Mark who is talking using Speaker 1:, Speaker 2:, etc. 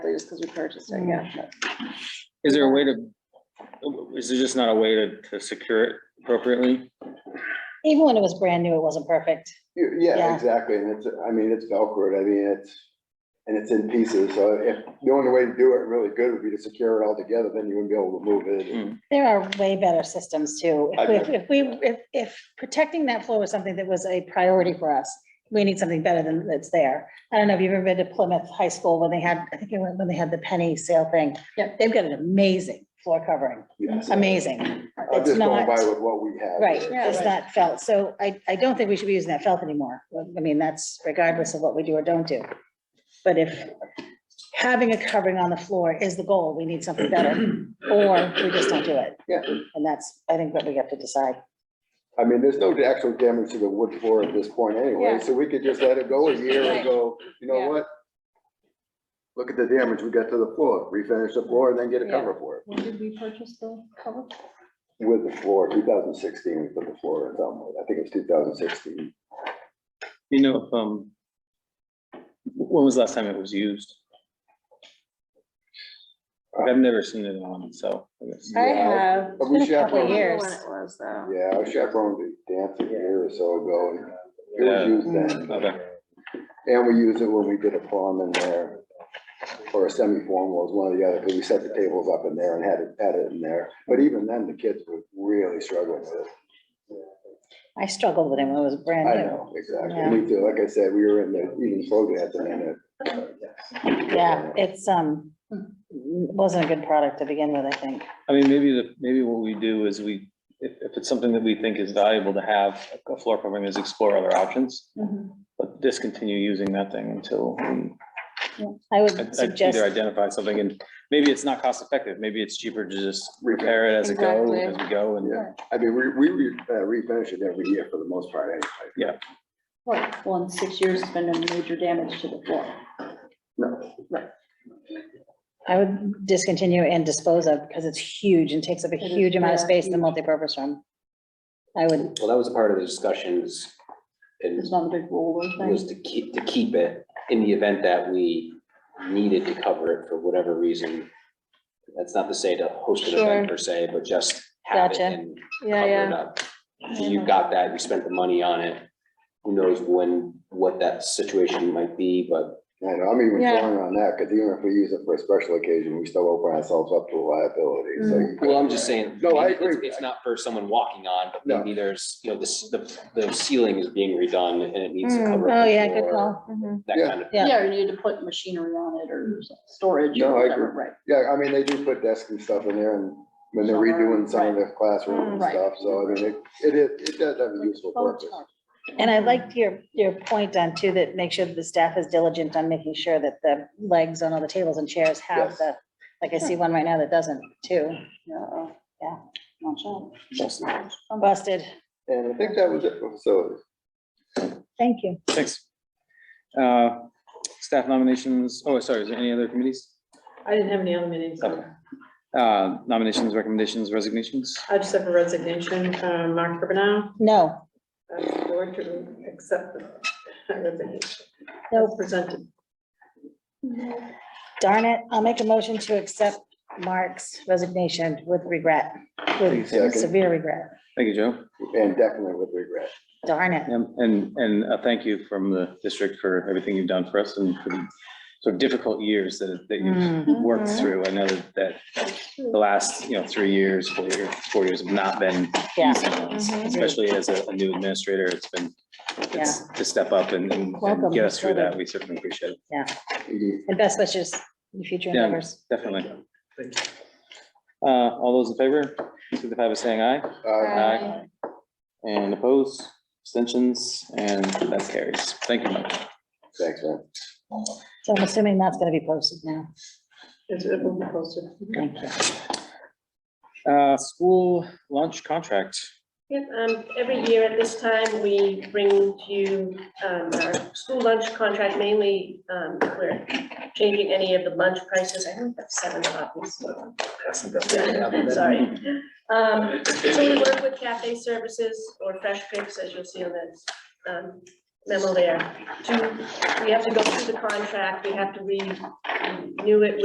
Speaker 1: is because we purchased it, yeah. but-
Speaker 2: Is there a way to, is there just not a way to, to secure it appropriately?
Speaker 3: Even when it was brand new, it wasn't perfect.
Speaker 4: You- Yeah,
Speaker 3: Yeah.
Speaker 4: exactly, and it's, I mean, it's Velcro, I mean, it's, and it's in pieces, so if, the only way to do it really good would be to secure it all together, then you wouldn't be able to move it.
Speaker 3: There are way better systems too.
Speaker 4: I
Speaker 3: If we, if we, if, if protecting that floor was something that was a priority for us, we need something better than that's there. I don't know if you've ever been to Plymouth High School when they had, I think it was when they had the penny sale thing.
Speaker 1: Yep.
Speaker 3: They've got an amazing floor covering,
Speaker 4: Yes.
Speaker 3: amazing.
Speaker 4: I'm
Speaker 3: It's
Speaker 4: just going
Speaker 3: not,
Speaker 4: by with what we have.
Speaker 3: right,
Speaker 4: here.
Speaker 1: Yeah,
Speaker 3: it's
Speaker 1: right.
Speaker 3: not felt. So I, I don't think we should be using that felt anymore. I mean, that's regardless of what we do or don't do. But if having a covering on the floor is the goal, we need something better, or we just don't do it.
Speaker 4: Yeah.
Speaker 3: And that's, I think, what we have to decide.
Speaker 4: I mean, there's no actual damage to the wood floor at this point
Speaker 1: Yeah.
Speaker 4: anyway, so we could just let it go a year
Speaker 1: Right.
Speaker 4: and go, you
Speaker 1: Yeah.
Speaker 4: know what? Look at the damage we got to the floor, refinish the floor and then get a
Speaker 1: Yeah.
Speaker 4: cover for it.
Speaker 1: When did we purchase the cover?
Speaker 4: With the floor, two thousand sixteen, we put the floor in somewhere, I think it's two thousand sixteen.
Speaker 2: You know, if, um, when was the last time it was used? I've never seen it on, so. I guess.
Speaker 1: I
Speaker 4: Yeah.
Speaker 1: have.
Speaker 4: But we
Speaker 3: It's been a couple of
Speaker 4: chaperoned it.
Speaker 1: I don't
Speaker 3: years.
Speaker 1: know When it was though.
Speaker 4: Yeah, I chaperoned the dance a year or so ago, and it
Speaker 2: Yeah.
Speaker 4: was used then,
Speaker 2: Okay.
Speaker 4: and we used it when we did a prom in there. Or a semi-formal was one or the other, because we set the tables up in there and had it, had it in there, but even then, the kids were really struggling with it.
Speaker 3: I struggled with it when it was brand
Speaker 4: I
Speaker 3: new.
Speaker 4: know, exactly,
Speaker 3: Yeah.
Speaker 4: me too, like I said, we were in the, even slow dancing in it.
Speaker 3: Yeah, it's, um, wasn't a good product to begin with, I think.
Speaker 2: I mean, maybe the, maybe what we do is we, if, if it's something that we think is valuable to have, a floor covering is explore other options.
Speaker 1: Mhm.
Speaker 2: But discontinue using that thing until we
Speaker 3: I
Speaker 2: I-
Speaker 3: would
Speaker 2: I either
Speaker 3: suggest,
Speaker 2: identify something and maybe it's not cost effective, maybe it's cheaper to just repair it as it go,
Speaker 1: Exactly.
Speaker 2: as we go and.
Speaker 4: Yeah, I mean, we, we re- uh, refinish it every year for the most part, anyway.
Speaker 1: Right, well, in six years, it's been a major damage to the floor.
Speaker 4: No,
Speaker 3: I would discontinue and dispose of because it's huge and takes up a
Speaker 1: It is,
Speaker 3: huge amount of
Speaker 1: yeah,
Speaker 3: space in the multipurpose room. I would,
Speaker 5: Well, that was a part of the discussions and
Speaker 1: It's not a big roller
Speaker 5: was
Speaker 1: thing.
Speaker 5: to keep, to keep it in the event that we needed to cover it for whatever reason. That's not to say to host an event per se, but just have it
Speaker 3: Gotcha.
Speaker 5: and
Speaker 1: Yeah,
Speaker 5: cover it
Speaker 1: yeah.
Speaker 5: up. You've got that, you spent the money on it. Who knows when, what that situation might be, but
Speaker 4: I know, I'm even
Speaker 1: Yeah.
Speaker 4: drawing on that, because even if we use it for a special occasion, we still open ourselves up to liability, so.
Speaker 1: Mm.
Speaker 4: you-
Speaker 5: well, I'm just saying.
Speaker 4: No, I
Speaker 5: maybe it's-
Speaker 4: agree.
Speaker 5: It's not for someone walking on, but
Speaker 4: No.
Speaker 5: maybe there's, you know, this, the, the ceiling is being redone and it needs to
Speaker 1: Mm,
Speaker 5: cover. up
Speaker 3: oh
Speaker 5: the
Speaker 3: yeah, good
Speaker 5: floor,
Speaker 3: call.
Speaker 1: Mhm.
Speaker 5: That
Speaker 4: Yeah.
Speaker 5: kind of
Speaker 3: Yeah.
Speaker 1: Yeah, Mm. or you need to put machinery on it or storage
Speaker 4: No,
Speaker 1: or
Speaker 4: I
Speaker 1: whatever,
Speaker 4: agree.
Speaker 1: right?
Speaker 4: Yeah, I mean, they do put desks and stuff in there, and when they're redoing some of the classroom and
Speaker 1: Right.
Speaker 4: stuff, so I mean, it, it, is- it does have a useful
Speaker 1: Oh,
Speaker 4: purpose.
Speaker 1: it's hard.
Speaker 3: And I liked your, your point on too, that make sure that the staff is diligent on making sure that the legs on all the tables and chairs have
Speaker 4: Yes.
Speaker 3: the, like I see one right now that doesn't too,
Speaker 1: Yeah, yeah, watch out.
Speaker 3: busted.
Speaker 4: And I think that was it, for facilities.
Speaker 3: Thank you.
Speaker 2: Thanks. Uh, Staff nominations, oh, sorry, is there any other committees?
Speaker 6: I didn't have any other meetings. so
Speaker 2: Okay. Uh, Nominations, recommendations, resignations?
Speaker 6: I just have a resignation from Mark Urbanow,
Speaker 3: No,
Speaker 6: uh, board to accept the resignation.
Speaker 3: No.
Speaker 6: As presented.
Speaker 3: darn it. I'll make a motion to accept Mark's resignation with regret, with
Speaker 4: Second.
Speaker 3: severe regret.
Speaker 2: Thank you, Joe.
Speaker 4: and definitely with regret.
Speaker 3: Darn it.
Speaker 2: And- And, and a thank you from the district for everything you've done for us and for the sort of difficult years that, that you've
Speaker 3: Mm,
Speaker 2: worked through. I know that that the last, you know, three years, four years, four years have not been
Speaker 3: Yeah. Mm-hmm.
Speaker 2: easy ones, especially as a a new administrator. It's been, it's to step up and and- and
Speaker 3: Welcome,
Speaker 2: get us through
Speaker 3: Minnesota.
Speaker 2: that. We certainly appreciate it.
Speaker 3: And best wishes in future
Speaker 2: Yeah.
Speaker 3: endeavors.
Speaker 2: Definitely. Uh, all those in favor, signify by saying aye.
Speaker 4: Uh,
Speaker 2: Aye. And opposed, abstentions, and that carries. Thank you, Mike.
Speaker 4: thanks, man.
Speaker 3: So I'm assuming that's going to be posted now.
Speaker 6: It's- It will be posted.
Speaker 3: Thank you.
Speaker 2: Uh, school lunch contract.
Speaker 6: Yep, um, every year at this time, we bring to you, um, our school lunch contract mainly, um, if we're changing any of the lunch prices. I only have seven copies. so I'll pass them down. Sorry. Um, so we work with cafe services or fresh picks, as you'll see on the, um, memo there. To, we have to go through the contract, we have to renew it